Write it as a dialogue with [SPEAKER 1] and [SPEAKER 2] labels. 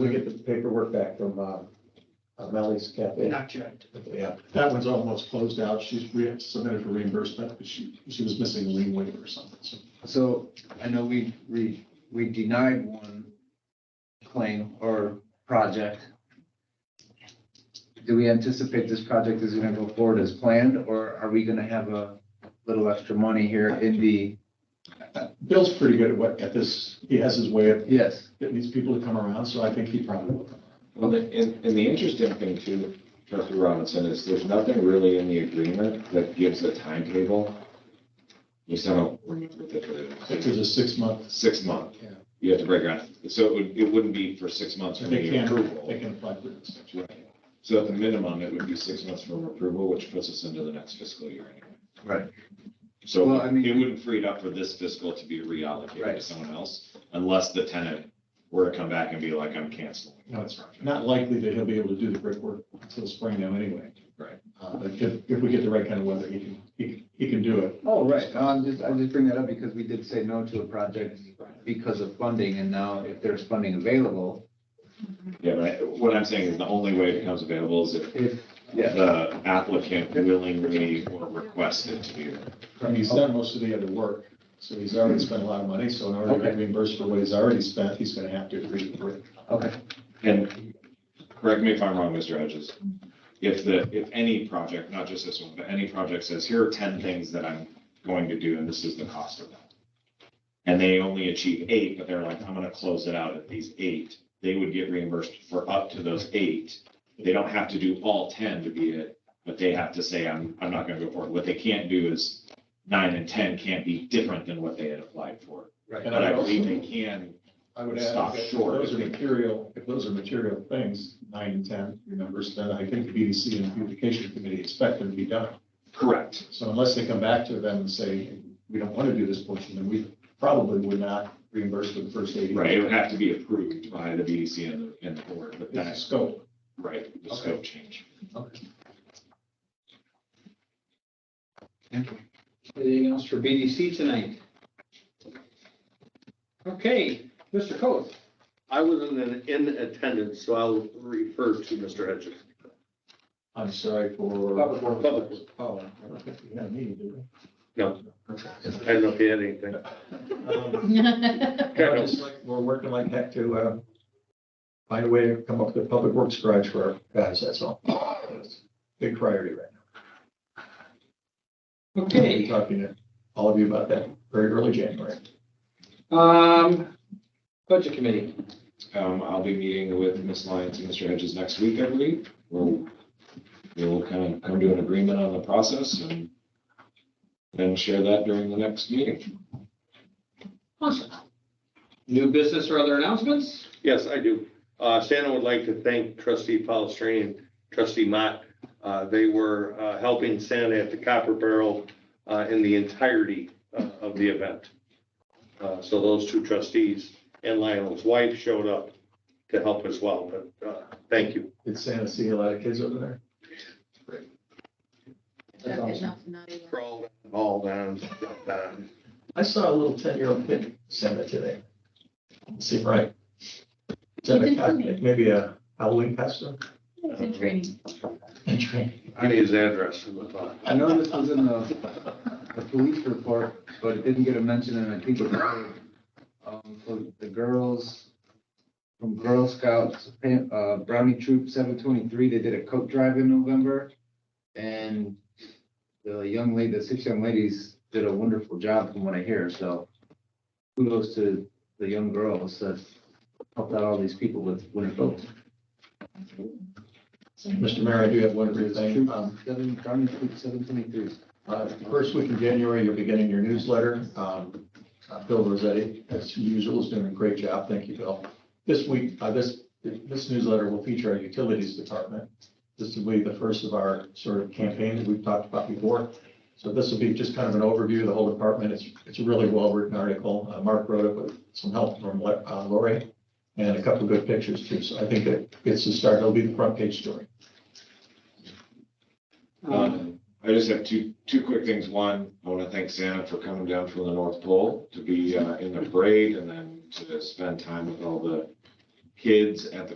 [SPEAKER 1] we get the paperwork back from, um, uh, Melly's Cafe?
[SPEAKER 2] Not yet.
[SPEAKER 1] Yeah,
[SPEAKER 3] That one's almost closed out. She's re- submitted for reimbursement, but she, she was missing a lien waiver or something. So
[SPEAKER 4] So I know we, we, we denied one claim or project. Do we anticipate this project is gonna go forward as planned, or are we gonna have a little extra money here in the,
[SPEAKER 3] Bill's pretty good at what, at this. He has his way of
[SPEAKER 4] yes?
[SPEAKER 3] getting these people to come around, so I think he probably will. come.
[SPEAKER 5] Well, the- and, and the interesting thing too, Trustee Robinson, is there's nothing really in the agreement that gives a timetable. You oh, sound, don't remember
[SPEAKER 3] If
[SPEAKER 5] the,
[SPEAKER 3] there's a six month,
[SPEAKER 5] six month,
[SPEAKER 3] Yeah.
[SPEAKER 5] you have to break ground. So it would, it wouldn't be for six months from
[SPEAKER 3] they
[SPEAKER 5] the
[SPEAKER 3] can, they
[SPEAKER 5] approval.
[SPEAKER 3] can apply for an extension.
[SPEAKER 5] Right. So at the minimum, it would be six months from approval, which puts us into the next fiscal year anyway.
[SPEAKER 4] Right.
[SPEAKER 5] So
[SPEAKER 4] Well, I mean-
[SPEAKER 5] it wouldn't free it up for this fiscal to be reallocated to
[SPEAKER 4] Right.
[SPEAKER 5] someone else unless the tenant were to come back and be like, I'm canceling.
[SPEAKER 3] No, it's not likely that he'll be able to do the brickwork until spring now anyway.
[SPEAKER 5] Right.
[SPEAKER 3] Uh, but if, if we get the right kind of weather, he can, he, can- he can do it.
[SPEAKER 4] Oh, right, No, I'm just, I just bring that up because we did say no to a project because of funding, and now if there's funding available,
[SPEAKER 5] Yeah, but I- what I'm saying is the only way it becomes available is if
[SPEAKER 4] if, yeah,
[SPEAKER 5] the applicant willingly or requested to do that.
[SPEAKER 3] And he's done most of the other work, so he's already spent a lot of money, so in order to get
[SPEAKER 4] Okay.
[SPEAKER 3] reimbursed for what he's already spent, he's gonna have to agree to brick.
[SPEAKER 4] okay,
[SPEAKER 5] And correct me if I'm wrong, Mr. Hodges, if the, if any project, not just this one, but any project says, here are ten things that I'm going to do and this is the cost of them. And they only achieve eight, but they're like, I'm gonna close it out at these eight, they would get reimbursed for up to those eight. They don't have to do all ten to be it, but they have to say, I'm, I'm not gonna go for it. What they can't do is nine and ten can't be different than what they had applied for.
[SPEAKER 4] right.
[SPEAKER 3] And
[SPEAKER 5] But
[SPEAKER 3] I
[SPEAKER 5] I
[SPEAKER 3] would
[SPEAKER 5] believe they
[SPEAKER 3] also,
[SPEAKER 5] can
[SPEAKER 3] I would add,
[SPEAKER 5] stop
[SPEAKER 3] that if
[SPEAKER 5] short.
[SPEAKER 3] those are material, if those are material things, nine and ten, your numbers, then I think the BDC and beautification committee expect them to be done.
[SPEAKER 5] correct
[SPEAKER 3] So unless they come back to them and say, we don't want to do this portion, then we probably would not reimburse for the first eighty.
[SPEAKER 5] Right, it would have to be approved by the BDC and the, and the board, but
[SPEAKER 3] It's a
[SPEAKER 5] that's,
[SPEAKER 3] scope.
[SPEAKER 5] right, the
[SPEAKER 4] Okay.
[SPEAKER 5] scope change.
[SPEAKER 2] Anything else for BDC tonight? Okay, Mr. Coth.
[SPEAKER 6] I was in, in attendance, so I'll refer to Mr. Hedges.
[SPEAKER 3] I'm sorry for.
[SPEAKER 2] Public Works.
[SPEAKER 6] Public Works.
[SPEAKER 3] Oh, I don't think we had a meeting, did we?
[SPEAKER 6] No. I don't know if he had anything.
[SPEAKER 3] Um,
[SPEAKER 6] Kind
[SPEAKER 1] We're just like- we're working like heck to, uh, find a way to come up with a public works garage for our guys, that's all. It's a Big priority right now. We'll be
[SPEAKER 2] Okay,
[SPEAKER 1] Talking to all of you about that very early January.
[SPEAKER 2] um, budget committee.
[SPEAKER 5] Um, I'll be meeting with Ms. Lyons and Mr. Hedges next week, I believe. We'll, we'll kind of come to an agreement on the process and then share that during the next meeting.
[SPEAKER 2] Awesome. New business or other announcements?
[SPEAKER 6] Yes, I do. Uh, Shannon would like to thank trustee Palastrellini and trustee Mott. Uh, they were, uh, helping Santa at the Copper Barrel, uh, in the entirety of, of the event. Uh, so those two trustees and Lionel's wife showed up to help as well, but, uh, thank you.
[SPEAKER 1] Did Santa see a lot of kids over there?
[SPEAKER 2] That's
[SPEAKER 7] Not-
[SPEAKER 2] awesome.
[SPEAKER 7] not- not even.
[SPEAKER 6] All down, down.
[SPEAKER 1] I saw a little ten-year-old kid Santa today. Seemed right. Santa,
[SPEAKER 7] didn't
[SPEAKER 1] cos-
[SPEAKER 7] see me.
[SPEAKER 1] maybe a Halloween costume?
[SPEAKER 7] It's in training.
[SPEAKER 6] I need his address. in the file.
[SPEAKER 4] I know this was in the, the police report, but it didn't get a mention, and I think it was, um, for the girls, from Girl Scouts, uh, Brownie Troop seven twenty-three, they did a coat drive in November, and the young lady, the six young ladies did a wonderful job from what I hear, so kudos to the young girls that helped out all these people with winter coats.
[SPEAKER 3] Mr. Mayor, I do have one other
[SPEAKER 4] Troop
[SPEAKER 3] thing. Um,
[SPEAKER 4] seven- Brownie Troop seven twenty-three.
[SPEAKER 3] uh, First week in January, you'll be getting your newsletter. Um, uh, Bill Rossetti, as usual, is doing a great job. Thank you, Bill. This week, uh, this, this newsletter will feature our utilities department. This will be the first of our sort of campaign that we've talked about before. So this will be just kind of an overview of the whole department. It's, it's a really well-written article. Uh, Mark wrote it with some help from uh, Lori and a couple of good pictures too. So I think it gets to start. It'll be the front page story.
[SPEAKER 2] Um,
[SPEAKER 5] Um, I just have two, two quick things. One, I want to thank Santa for coming down from the North Pole to be uh, in the parade and then to spend time with all the kids at the